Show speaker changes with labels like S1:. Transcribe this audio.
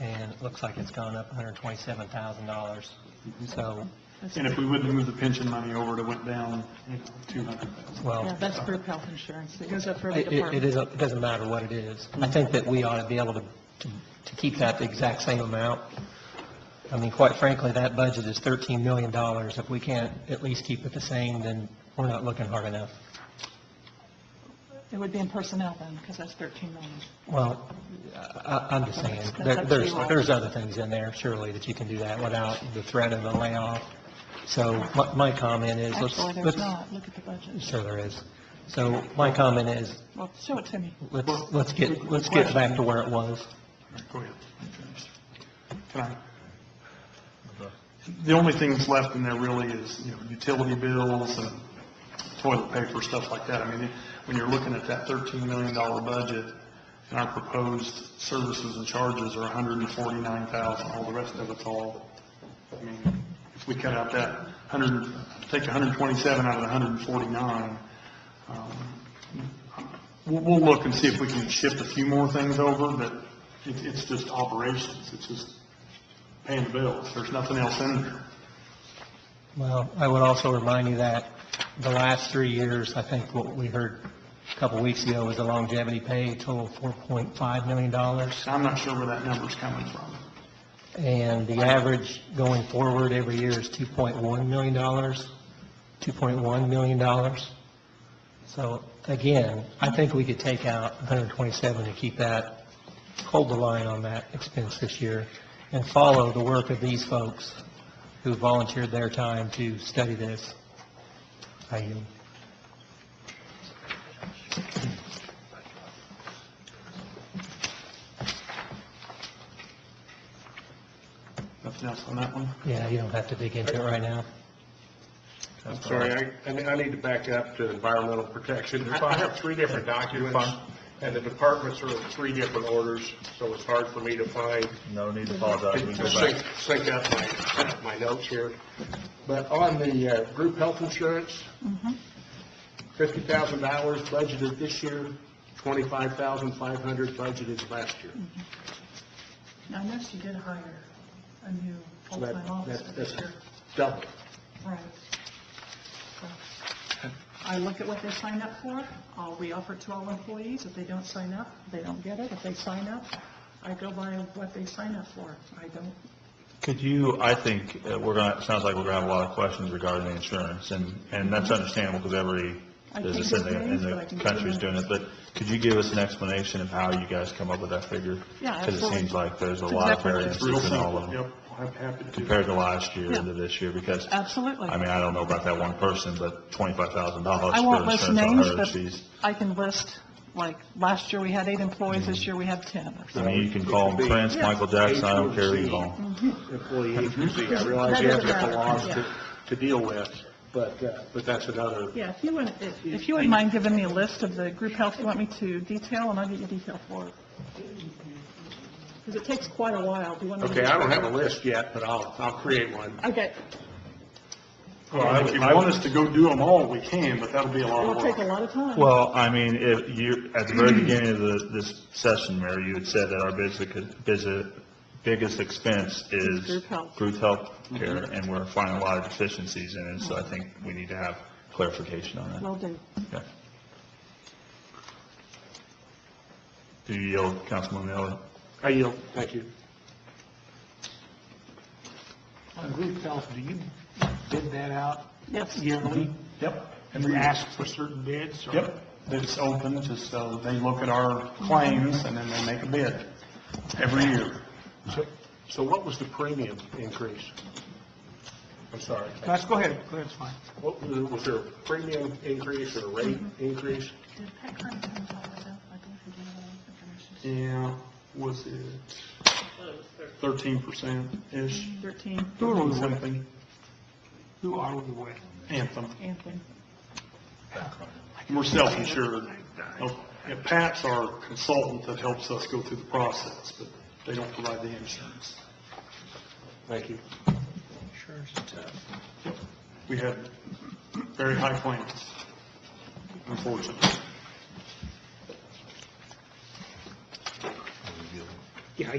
S1: and it looks like it's gone up $127,000. So,
S2: And if we wouldn't move the pension money over, it went down, you know, 200,000.
S1: well,
S3: Yeah, that's group health insurance. It goes up for every
S1: It- It it
S3: department.
S1: isn't, it doesn't matter what it is. I think that we ought to be able to, to to keep that the exact same amount. I mean, quite frankly, that budget is $13 million. If we can't at least keep it the same, then we're not looking hard enough.
S3: It would be in personnel then, because that's 13 million.
S1: Well, I, I'm just saying, there- there's, there's other things in there surely that you can do that without the threat of a layoff. So my, my comment is, let's,
S3: Actually, there's
S1: let's-
S3: not. Look at the budget.
S1: sure there is. So my comment is,
S3: Well, show it to me.
S1: let's, let's get, let's get back to where it was.
S2: Go ahead. Can I? The only thing that's left in there really is, you know, utility bills and toilet paper, stuff like that. I mean, when you're looking at that thirteen million dollar budget, and our proposed services and charges are a hundred and forty-nine thousand, all the rest of it's all, I mean, if we cut out that hundred, take a hundred and twenty-seven out of the hundred and forty-nine, um, We'll, we'll look and see if we can shift a few more things over, but it, it's just operations, it's just paying the bills, there's nothing else in there.
S1: Well, I would also remind you that the last three years, I think what we heard a couple weeks ago was the longevity pay total $4.5 million.
S2: So I'm not sure where that number's coming from.
S1: And the average going forward every year is $2.1 million, $2.1 million. So again, I think we could take out 127 and keep that, hold the line on that expense this year and follow the work of these folks who volunteered their time to study this. I yield.
S2: Nothing else on that one?
S1: Yeah, you don't have to dig into it right now.
S4: I'm sorry, I- I, need- I need to back up to environmental protection. I I have three different documents, and the departments are in three different orders, so it's hard for me to find,
S5: No need to apologize, we can
S4: to
S5: go back.
S4: sync, sync up my, my notes here. But on the uh, group health insurance, fifty thousand dollars budgeted this year, twenty-five thousand five hundred budgeted last year.
S3: Now, I noticed you did hire a new
S4: So
S3: full-time
S4: that-
S3: officer
S4: that-
S3: this
S4: That's
S3: year.
S4: double.
S3: Right. So, I look at what they sign up for. Uh, We offer it to all employees. If they don't sign up, they don't get it. If they sign up, I go by what they sign up for. I don't,
S5: Could you, I think, uh, we're gonna, it sounds like we're gonna have a lot of questions regarding the insurance, and, and that's understandable, because every
S3: I can't
S5: business in the, in
S3: explain, but I
S5: the
S3: can
S5: country is
S3: give you-
S5: doing it, but could you give us an explanation of how you guys come up with that figure?
S3: Yeah,
S5: Because it
S3: absolutely.
S5: seems like there's a lot of
S3: Exactly.
S2: It's real
S5: variances in all of
S2: simple,
S5: them,
S2: yep, I'm happy to do that.
S5: compared to last year
S3: Yeah.
S5: to this year, because,
S3: absolutely.
S5: I mean, I don't know about that one person, but twenty-five thousand dollars
S3: I
S5: for
S3: won't list
S5: insurance on
S3: names,
S5: her, she's,
S3: but I can list, like, last year we had eight employees, this year we have 10 or
S5: I
S3: something.
S5: mean, you can call
S4: It could
S5: him
S4: be
S5: Prince,
S3: Yeah.
S5: Michael Jackson, I don't care who you
S4: H O
S5: call
S4: C.
S5: 'em.
S3: Mm-hmm.
S4: employee agency. I realize you have the laws to, to deal with, but, uh, but that's another,
S3: Yeah, if you wouldn't, if- if you wouldn't mind giving me a list of the group health you want me to detail, and I'll get you detail for it. Because it takes quite a while. Do you want me to?
S4: okay, I don't have a list yet, but I'll, I'll create one.
S3: Okay,
S2: Well, If you want us to go do them all, we can, but that'll be a lot
S3: it'll
S2: of
S3: take a
S2: work.
S3: lot of time.
S5: Well, I mean, if you, at the very beginning of the, this session, Mayor, you had said that our biggest, biggest- biggest expense is
S3: Group health.
S5: group health care, and we're finding a lot of deficiencies in it, so I think we need to have clarification on that.
S3: Will do.
S5: Okay. Do you yield, Councilman Miller?
S4: I yield, thank you.
S6: On group health, do you bid that out
S3: Yes.
S6: yearly?
S2: Yep.
S6: And we ask for certain bids? or-
S2: Yep, it's open, just so they look at our claims and then they make a bid every year.
S4: So- So what was the premium increase? I'm sorry.
S6: Let's go ahead, go ahead, it's fine.
S4: What, was was there a premium increase or a rate
S6: Mm-hmm.
S4: increase?
S2: Yeah, was it thirteen percent-ish?
S3: 13,
S2: Who are we with?
S6: Who are we with?
S2: Anthem.
S3: Anthony.
S2: We're self-insured. Oh, yeah, Pat's our consultant that helps us go through the process, but they don't provide the insurance.
S4: Thank you.
S2: We had very high claims, unfortunately.